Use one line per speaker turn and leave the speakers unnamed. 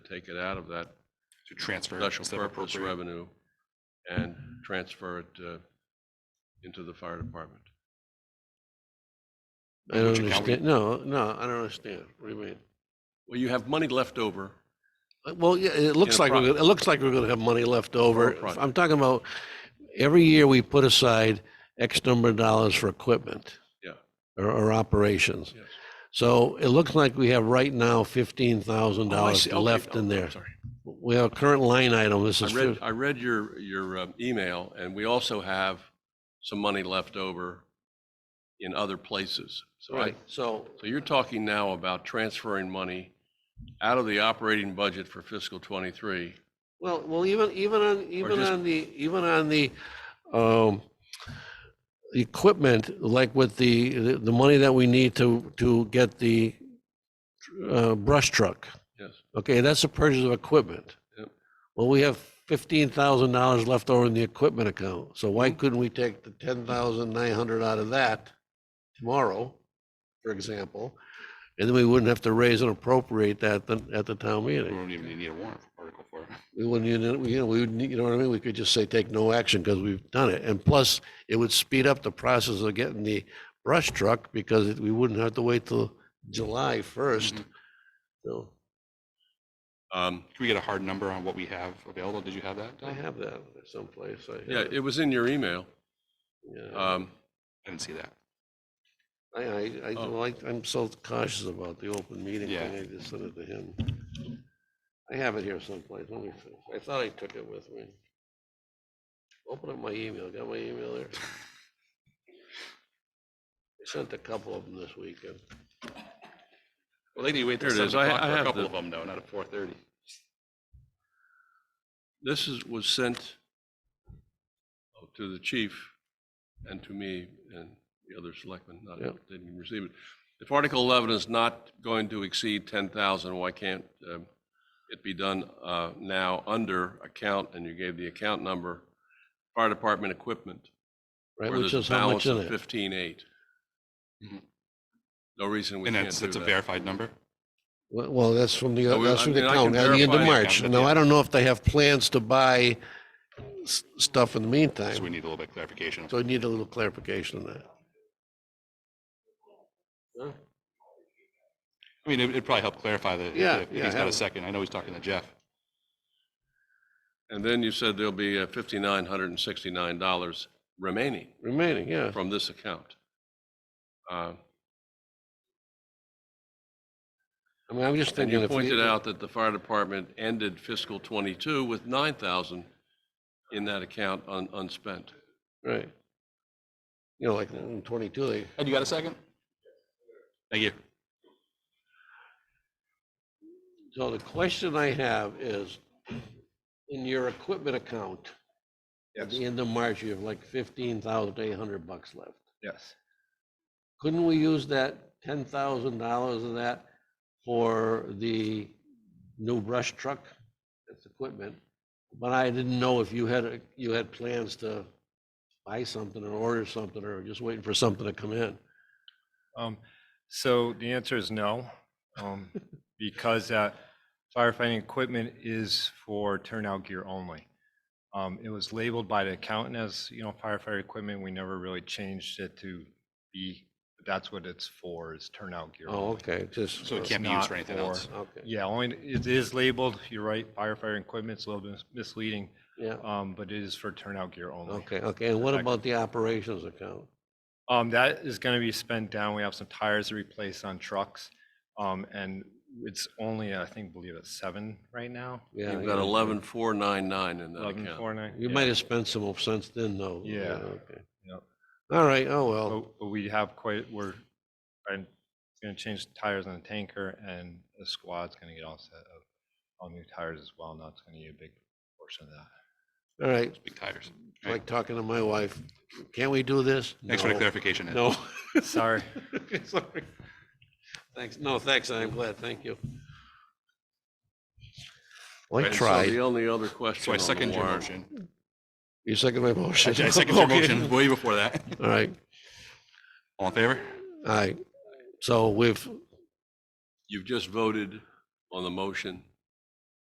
take it out of that
to transfer.
special
instead of
purpose
appropriate.
revenue and transfer it uh, into the fire department.
I
Which
don't
account we-
understand. No, no, I don't understand. What do you mean?
Well, you have money left over.
Uh, Well, yeah, it looks
a
like, we're
pro-
gonna- it looks like we're gonna have money left over.
project.
I'm talking about, every year we put aside X number of dollars for equipment.
Yeah.
Or, or operations.
Yes.
So it looks like we have right now fifteen thousand
Oh, I
dollars
see. Okay.
left
Oh,
in
I'm
there.
sorry.
We have a current line item, this
I
is,
read,
fif-
I read your, your um, email, and we also have some money left over in other places. So I,
right, so,
so you're talking now about transferring money out of the operating budget for fiscal '23.
well, well, even, even on, even
just-
on the, even on the, um, equipment, like with the, the- the money that we need to, to get the, uh, brush truck.
Yes,
Okay, that's the purchase of equipment.
Yep.
Well, we have fifteen thousand dollars left over in the equipment account, so
Mm-hmm.
why couldn't we take the ten thousand nine hundred out of that tomorrow, for example? And then we wouldn't have to raise and appropriate that the- at the town
We
meeting.
don't even need a warrant article for it.
We wouldn't, even- you know, we would, you know what I mean? We could just say, take no action because we've done it. And plus, it would speed up the process of getting the brush truck because it- we wouldn't have to wait till July first.
Mhm.
So
Um,
Can we get a hard number on what we have available? Did you have that? Don?
I have that someplace. I have
yeah,
it.
it was in your email.
Yeah.
Um,
I didn't see that.
I, I, I,
Oh.
well, I, I'm so cautious about the open meeting
Yeah.
thing, I just sent it to him. I have it here someplace, let me, see. I thought I took it with me. Open up my email, got my email there? I sent a couple of them this weekend.
Well, they need to wait
till There it is. 7 I- o'clock I for a have couple the- of
them, though, not at four thirty.
This is, was sent to the chief and to me and the other selectmen, not,
Yeah.
they didn't receive it. If Article 11 is not going to exceed 10,000, why can't um, it be done uh, now under account, and you gave the account number, fire department equipment?
Right,
where
which
there's
is
a
how
balance
much in
of
it?
15,8.
Mhm.
No reason we
And
can't
that's,
do
that's a
that.
verified number?
Well, well, that's from the,
No, we-
that's
I
from the
mean, I
account,
can
at the end of
verify
the
March.
account,
Now,
yeah.
I don't know if they have plans to buy s- stuff in the
So we
meantime,
need a little bit of clarification.
so I need a little clarification on that. Huh?
I mean, it- it'd probably help clarify that. if-
Yeah,
if-
yeah,
If he's got
have
a
it.
second. I know he's talking to Jeff.
And then you said there'll be uh, $5,969 remaining.
Remaining, yeah.
from this account. Uh,
I mean, I'm just
And
thinking.
you
if we-
pointed out that the fire department ended fiscal '22 with 9,000 in that account un- unspent.
Right. You know, like in twenty-two, they,
Ed, you got a second? Thank you.
so the question I have is, in your equipment account, at the end of March, you have like fifteen thousand eight hundred bucks left.
Yes.
Couldn't we use that ten thousand dollars of that for the new brush truck? That's equipment. But I didn't know if you had, a- you had plans to buy something or order something or just waiting for something to come in.
Um, so the answer is no, um, because uh, firefighting equipment is for turnout gear only. Um, it was labeled by the accountant as, you know, firefighter equipment. We never really changed it to be, but that's what it's for, is turnout gear.
Oh,
only.
okay, just.
So it
It's
can't be used
not
for anything else.
Okay,
Yeah, only, it is labeled, you're right, firefighter equipment, it's a little bit misleading,
yeah.
um, but it is for turnout gear only.
Okay, okay, and what
Perfect.
about the operations account?
Um, that is gonna be spent down. We have some tires to replace on trucks. Um, and it's only, I think, believe it's seven right now.
Yeah,
You've got
yeah.
11,499 in that
Eleven
account.
four nine.
You might have spent some of since then, though.
Yeah.
okay.
Yep.
All right, oh, well,
But but we have quite, we're, I'm gonna change the tires on the tanker and the squad's gonna get all set up. All new tires as well. Now it's gonna be a big portion of that.
Oh,
all right,
Big tires.
It's like talking to my wife, can't we do this?
Thanks for the
No.
clarification, Ed.
No.
Sorry.
Okay, Sorry. Thanks, no, thanks, I'm glad, thank you. Well, I
And so The
tried.
only other question
So I
on the
second your
warrant-
motion.
You second my
I
motion?
I second your
Okay.
motion way before that.
All right,
All in favor?
all right, so we've,
You've just voted on the motion